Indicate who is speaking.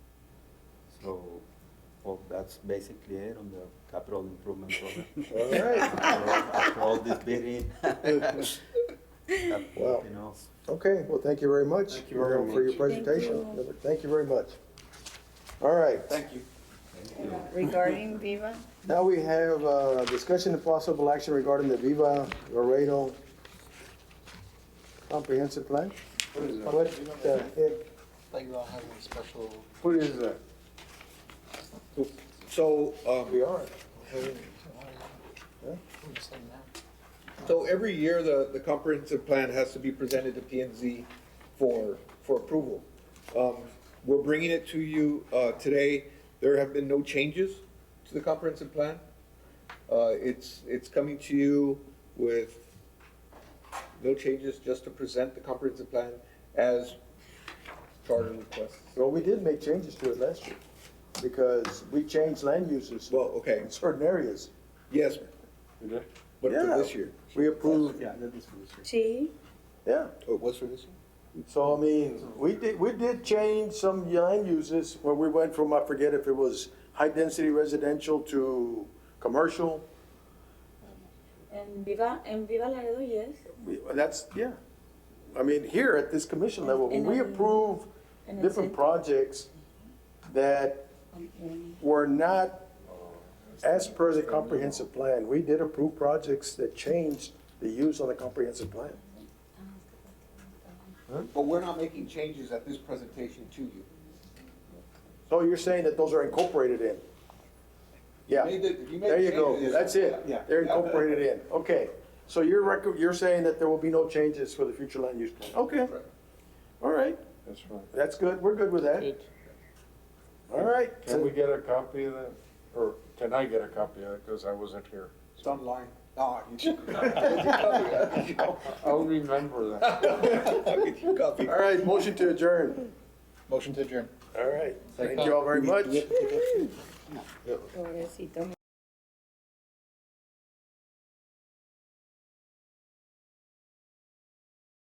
Speaker 1: So, well, that's basically it on the capital improvement program.
Speaker 2: All right,
Speaker 1: After all- After all this bidding.
Speaker 2: Wow.
Speaker 1: You know,
Speaker 2: okay, well, thank you very much.
Speaker 3: Thank you
Speaker 2: For
Speaker 3: very
Speaker 2: your
Speaker 3: much.
Speaker 4: Thank
Speaker 2: presentation.
Speaker 4: you.
Speaker 2: Thank you very much. All right,
Speaker 3: Thank you.
Speaker 4: regarding Viva.
Speaker 2: now we have uh discussion and possible action regarding the Viva Laredo comprehensive plan.
Speaker 3: What is that?
Speaker 2: What the heck,
Speaker 5: Like we all have a special.
Speaker 3: What is that?
Speaker 6: So,
Speaker 2: we
Speaker 6: um,
Speaker 2: are?
Speaker 5: Who's saying that?
Speaker 6: so every year, the, the comprehensive plan has to be presented to P and Z for, for approval. Um, we're bringing it to you, uh, today. There have been no changes to the comprehensive plan. Uh, it's, it's coming to you with no changes, just to present the comprehensive plan as charter requests.
Speaker 2: Well, we did make changes to it last year because we changed land uses
Speaker 6: Well, okay,
Speaker 2: in certain areas.
Speaker 6: yes, but for
Speaker 2: Yeah.
Speaker 6: this year,
Speaker 2: We approved,
Speaker 1: yeah, that is for sure.
Speaker 4: T.
Speaker 2: yeah.
Speaker 6: oh, it was for this year?
Speaker 2: So I mean, we did, we did change some land uses where we went from, I forget if it was high-density residential to commercial.
Speaker 4: And Viva, and Viva Laredo, yes.
Speaker 2: We- That's, yeah. I mean, here at this commission level, when we approve
Speaker 4: And it's
Speaker 2: different
Speaker 4: in-
Speaker 2: projects that
Speaker 4: Okay.
Speaker 2: were not as per the comprehensive plan, we did approve projects that changed the use on the comprehensive plan.
Speaker 6: But we're not making changes at this presentation to you.
Speaker 2: So you're saying that those are incorporated in? Yeah.
Speaker 6: Made it- you made
Speaker 2: There you go,
Speaker 6: changes.
Speaker 2: that's it,
Speaker 6: Yeah.
Speaker 2: they're incorporated in, okay. So you're rec, you're saying that there will be no changes for the future land use plan? Okay,
Speaker 6: Correct.
Speaker 2: all right,
Speaker 3: That's right.
Speaker 2: that's good, we're good with that, all right.
Speaker 3: Can we get a copy of that? Or can I get a copy of it? Because I wasn't here.
Speaker 6: It's online. Ah, you should.
Speaker 3: I'll remember that.
Speaker 2: All right, motion to adjourn,
Speaker 5: Motion to adjourn.
Speaker 2: all right, thank you all very much.
Speaker 4: Pobrecito.